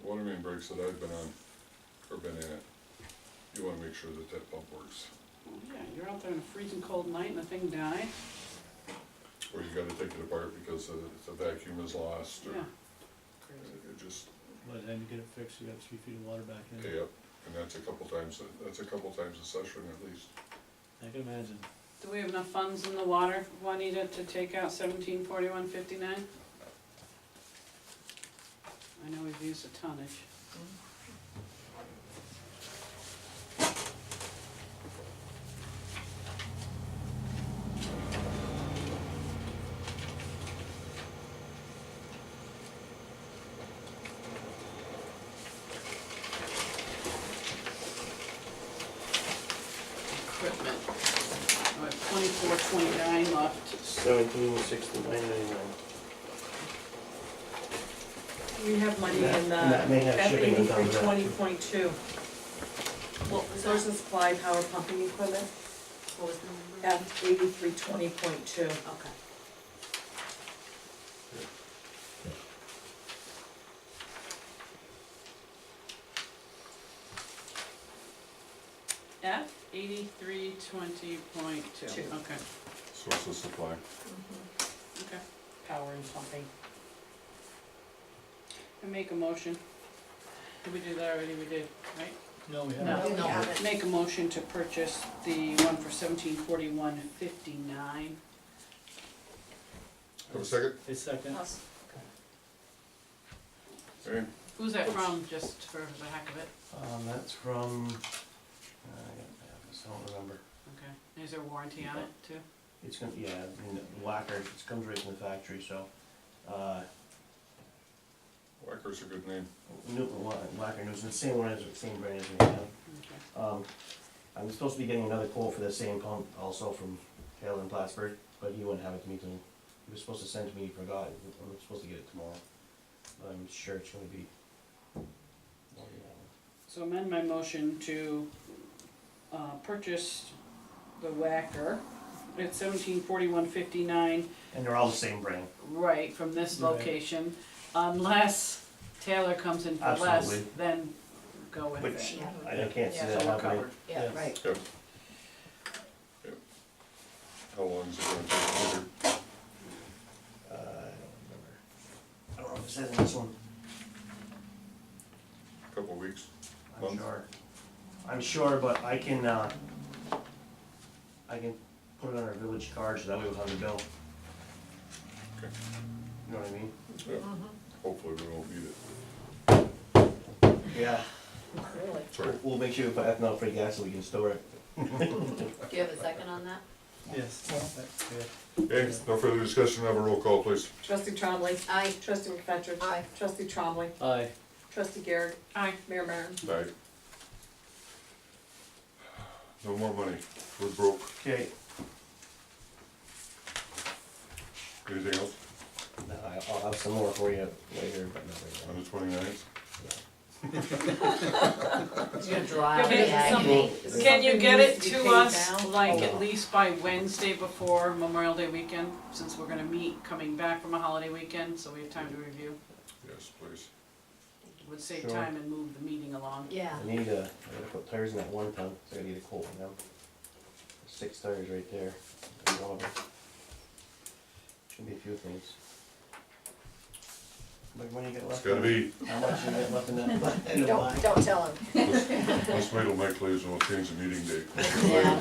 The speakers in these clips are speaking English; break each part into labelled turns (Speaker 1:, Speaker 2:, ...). Speaker 1: strikes that I've been on, or been in it, you wanna make sure that that pump works.
Speaker 2: Well, Yeah, you're out there on a freezing cold night and the thing dies,
Speaker 1: Or you gotta take it apart because the, the vacuum is lost, or
Speaker 2: yeah. Crazy.
Speaker 1: it it just,
Speaker 3: By the time you get it fixed, you got three feet of water back in.
Speaker 1: yep, and that's a couple times, a- that's a couple times a session at least.
Speaker 3: I can imagine.
Speaker 2: Do we have enough funds in the water, Juanita, to take out seventeen forty-one fifty-nine? I know we've used a tonnage. Equipment, I have twenty-four, twenty-nine left.
Speaker 4: Seventeen sixty-nine ninety-nine.
Speaker 5: We have money in the
Speaker 4: And that may have
Speaker 5: F
Speaker 4: shipping on top
Speaker 5: eighty-three
Speaker 4: of that,
Speaker 5: twenty point two. Well, source and supply, power pumping equipment,
Speaker 6: What was the number?
Speaker 5: F eighty-three twenty point two.
Speaker 6: Okay.
Speaker 2: F eighty-three twenty point two,
Speaker 5: Two.
Speaker 2: okay,
Speaker 1: Source of supply.
Speaker 2: okay.
Speaker 5: Power and pumping.
Speaker 2: I make a motion. Did we do that already? We did, right?
Speaker 3: No, we
Speaker 2: No.
Speaker 3: haven't.
Speaker 6: No, we haven't.
Speaker 2: Make a motion to purchase the one for seventeen forty-one fifty-nine.
Speaker 1: Have a second?
Speaker 3: A second.
Speaker 1: Okay,
Speaker 2: Who's that from, just for the heck of it?
Speaker 4: Um, that's from, uh, I don't have this, I don't remember.
Speaker 2: Okay. Is there warranty on it too?
Speaker 4: It's gonna, yeah, I mean, the whacker, it comes right from the factory, so, uh,
Speaker 1: Whacker's a good name.
Speaker 4: New, Wha- Whacker News, the same one as, same brand as we have.
Speaker 2: Okay.
Speaker 4: Um, I'm supposed to be getting another quote for the same pump also from Hale and Plattsburgh, but he wouldn't have it to me till, he was supposed to send it to me, he forgot, I'm supposed to get it tomorrow. But I'm sure it's gonna be. oh,
Speaker 2: So amend my motion to, uh, purchase the Whacker at seventeen forty-one fifty-nine
Speaker 4: And they're all the same brand,
Speaker 2: Right, from this
Speaker 3: Right.
Speaker 2: location, unless Taylor comes in for less,
Speaker 4: Absolutely.
Speaker 2: then go with it.
Speaker 4: which
Speaker 2: So
Speaker 6: Yeah.
Speaker 4: I I can't see
Speaker 6: Yeah.
Speaker 4: that
Speaker 2: we're
Speaker 4: happening.
Speaker 2: covered.
Speaker 6: Yeah,
Speaker 3: Yeah.
Speaker 6: right.
Speaker 1: Yep. Yep. How long is it gonna take? to order?
Speaker 4: Uh, I don't remember. I don't know if it says in this one,
Speaker 1: Couple weeks?
Speaker 4: I'm
Speaker 1: Month?
Speaker 4: sure. I'm sure, but I can, uh, I can put it on our village card, so that way we'll have the bill.
Speaker 1: Okay.
Speaker 4: You know what I mean?
Speaker 1: Yeah. Hopefully we won't beat it.
Speaker 4: Yeah.
Speaker 6: Really?
Speaker 1: Sorry.
Speaker 4: We'll make sure we put ethanol free gas so we can store it.
Speaker 6: Do you have a second on that?
Speaker 3: Yes. That's good.
Speaker 1: Okay, no further discussion, have a roll call, please.
Speaker 5: Trustee Trombley.
Speaker 6: Aye.
Speaker 5: Trustee McFetrich.
Speaker 6: Aye.
Speaker 5: Trustee Trombley.
Speaker 3: Aye.
Speaker 5: Trustee Garrett.
Speaker 2: Aye.
Speaker 5: Mayor Martin.
Speaker 1: Aye. No more money, we're broke.
Speaker 4: Okay.
Speaker 1: Anything else
Speaker 4: Uh, I'll have some more for you later, but not
Speaker 1: on
Speaker 4: right
Speaker 1: the twenty-ninth?
Speaker 6: It's gonna
Speaker 2: Yeah, but
Speaker 6: drive the agony.
Speaker 4: it's
Speaker 6: Is
Speaker 2: Can you
Speaker 6: something
Speaker 2: get it
Speaker 6: needs be
Speaker 2: to
Speaker 6: paid
Speaker 2: us,
Speaker 6: now?
Speaker 2: like,
Speaker 4: Oh.
Speaker 2: at least by Wednesday before Memorial Day weekend, since we're gonna meet coming back from a holiday weekend, so we have time to review?
Speaker 1: Yes, please.
Speaker 2: Would save
Speaker 4: Sure.
Speaker 2: time and move the meeting along.
Speaker 6: Yeah,
Speaker 4: now. I need a, I gotta put tires in that one ton, so I gotta get a quote on them. Six tires right there. There's all of them. Should be a few things. How much money you got
Speaker 1: It's
Speaker 4: left?
Speaker 1: gotta
Speaker 4: in-
Speaker 1: be,
Speaker 4: How much you got left in that? in the
Speaker 6: don't,
Speaker 4: bank?
Speaker 6: don't tell him.
Speaker 1: let's, let's wait till Mike leaves and we'll change the meeting date.
Speaker 6: Yeah.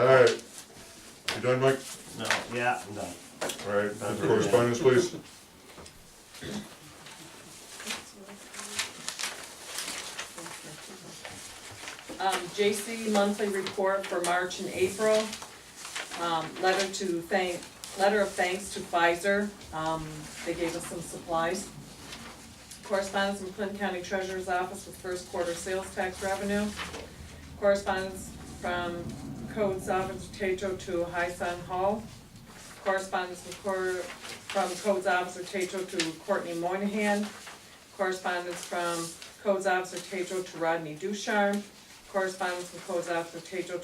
Speaker 1: Alright, you done, Mike?
Speaker 4: No, yeah, I'm done.
Speaker 1: Alright, correspondence, please.
Speaker 5: Um, JC monthly report for March and April. Um, letter to thank, letter of thanks to Pfizer, um, they gave us some supplies. Correspondence from Clinton County Treasurer's Office with first quarter sales tax revenue. Correspondence from Code Office Tato to High Sun Hall. Correspondence from Cor- from Codes Officer Tato to Courtney Moynihan. Correspondence from Codes Officer Tato to Rodney Ducharme. Correspondence from Codes Officer Tato